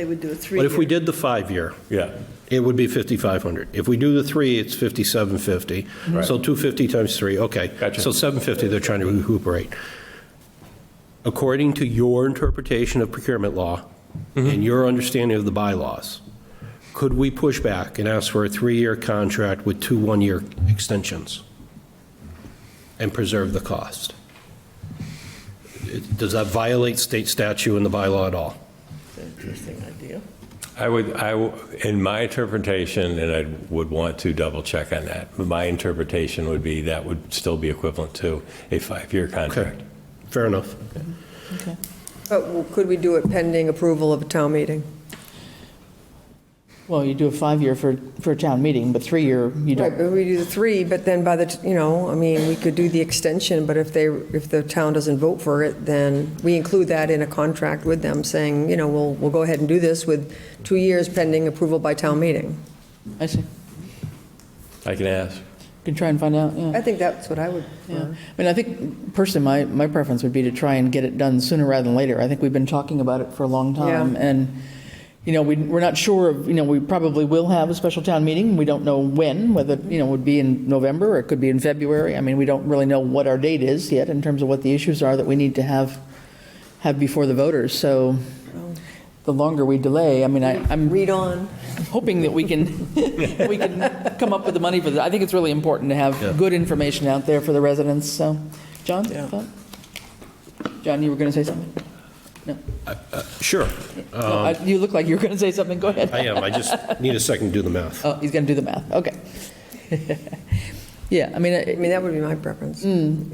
They would do a three-year. But if we did the five-year, Yeah, it would be 5,500. If we do the three, it's 5,750. Right. So 250 times three, okay. Gotcha. So 750 they're trying to recuperate. According to your interpretation of procurement law Mm-hmm. and your understanding of the bylaws, could we push back and ask for a three-year contract with two one-year extensions and preserve the cost? It- Does that violate state statute and the bylaw at all? Interesting idea. I would, I, w- in my interpretation, and I would want to double check on that, but my interpretation would be that would still be equivalent to a five-year Okay, contract. fair enough. But w- could we do it pending approval of a town meeting? Well, you do a five-year for, for a town meeting, but three-year, you Right, don't. but we do the three, but then by the, t- you know, I mean, we could do the extension, but if they, if the town doesn't vote for it, then we include that in a contract with them, saying, you know, we'll, we'll go ahead and do this with two years pending approval by town meeting. I see. I can ask. Can try and find out, I yeah. think that's what I would, Yeah. I mean, I think personally, my, my preference would be to try and get it done sooner rather than later. I think we've been talking about it for a long time. Yeah. And, you know, we, we're not sure of, you know, we probably will have a special town meeting. We don't know when, whether, you know, it would be in November or it could be in February. I mean, we don't really know what our date is yet in terms of what the issues are that we need to have, have before the voters. So Oh. the longer we delay, I mean, I, I'm. read on. hoping that we can, we can come up with the money for that. I think it's really important to have good information out there for the residents, so. John? thought? John, you were going to say something? Sure, Uh, You look like you were going to say something, go ahead. Um, I am, I just need a second to do the math. Oh, he's going to do the math, okay. Yeah, I mean, I I- mean, that would be my preference.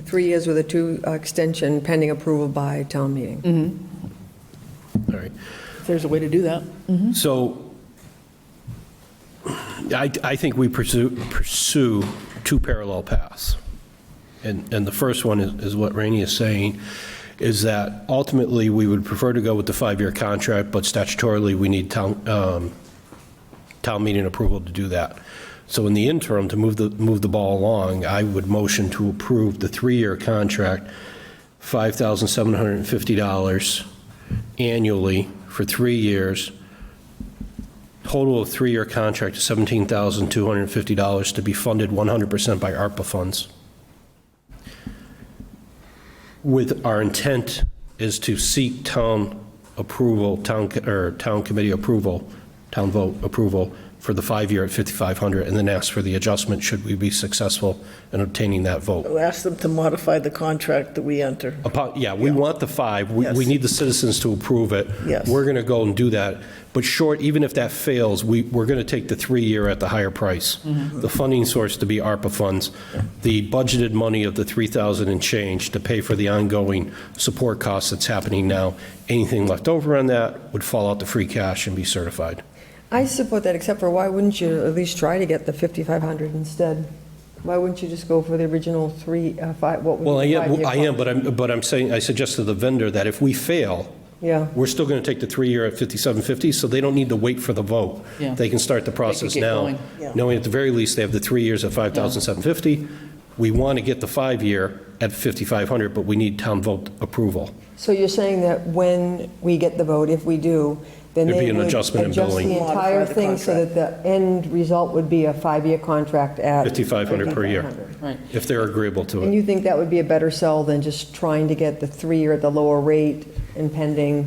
Three years with a two uh, extension pending approval by town meeting. All right. if there's a way to do that. So I, I think we pursue, pursue two parallel paths. And, and the first one is, is what Rainey is saying, is that ultimately, we would prefer to go with the five-year contract, but statutorily, we need town, um, town meeting approval to do that. So in the interim, to move the, move the ball along, I would motion to approve the three-year contract, $5,750 annually for three years, total of three-year contract is $17,250 to be funded 100% by ARPA funds. With, our intent is to seek town approval, town, co- or town committee approval, town vote approval for the five-year at 5,500, and then ask for the adjustment should we be successful in obtaining that vote. We'll ask them to modify the contract that we enter. Upon, yeah, we want the five, we, we Yes. need the citizens to approve it. Yes. We're going to go and do that, but short, even if that fails, we, we're going to take the three-year at the higher price. Mm-hmm. The funding source to be ARPA funds, the budgeted money of the 3,000 and change to pay for the ongoing support costs that's happening now. Anything left over on that would fall out to free cash and be certified. I support that, except for why wouldn't you at least try to get the 5,500 instead? Why wouldn't you just go for the original three, uh, five, what Well, I would be the am, five-year? I am, but I'm, but I'm saying, I suggest to the vendor that if we fail, Yeah. we're still going to take the three-year at 5750, so they don't need to wait for the vote. Yeah. They can start the process get now, going. Yeah. knowing at the very least they have the three years at 5,750. We want to get the five-year at 5,500, but we need town vote approval. So you're saying that when we get the vote, if we do, then There'd be they an would adjust adjustment in the billing. Modify entire the thing so that the end result would be a five-year contract at? 5,500 per year. 5,500. Right. If they're agreeable to And it. you think that would be a better sell than just trying to get the three-year at the lower rate and pending?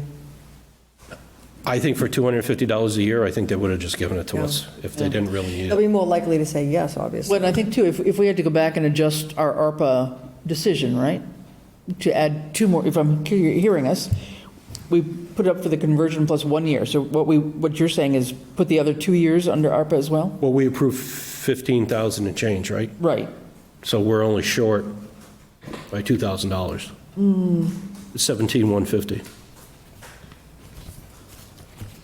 I think for $250 a year, I think they would have just given it to Yeah. us if they didn't really need They'll it. be more likely to say yes, obviously. Well, and I think too, if, if we had to go back and adjust our ARPA decision, right? To add two more, if I'm he- hearing us, we put up for the conversion plus one year. So what we, what you're saying is put the other two years under ARPA as well? Well, we approved 15,000 and change, right? Right. So we're only short by $2,000. 17,150.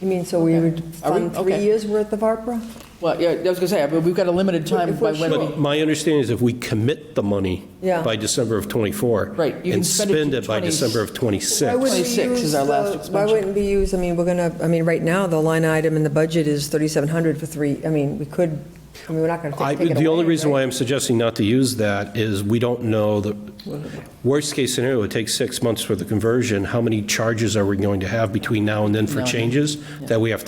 You mean, so we would Are we- fund three okay. years' worth of ARPA? Well, yeah, I was gonna say, but we've got a limited time If by we're when we, But my understanding is if we commit the money Yeah. by December of '24. Right, you can And spend it spend to it by 20 December of Why '26. wouldn't we 26 is use our last the- Why expansion. wouldn't we use, I mean, we're going to, I mean, right now, the line item in the budget is 3,700 for three, I mean, we could I mean, we're not going to I- take it away. The only reason right? why I'm suggesting not to use that is we don't know the, worst-case scenario, it takes six months for the conversion. How many charges are we going to have between now and then for changes that we have to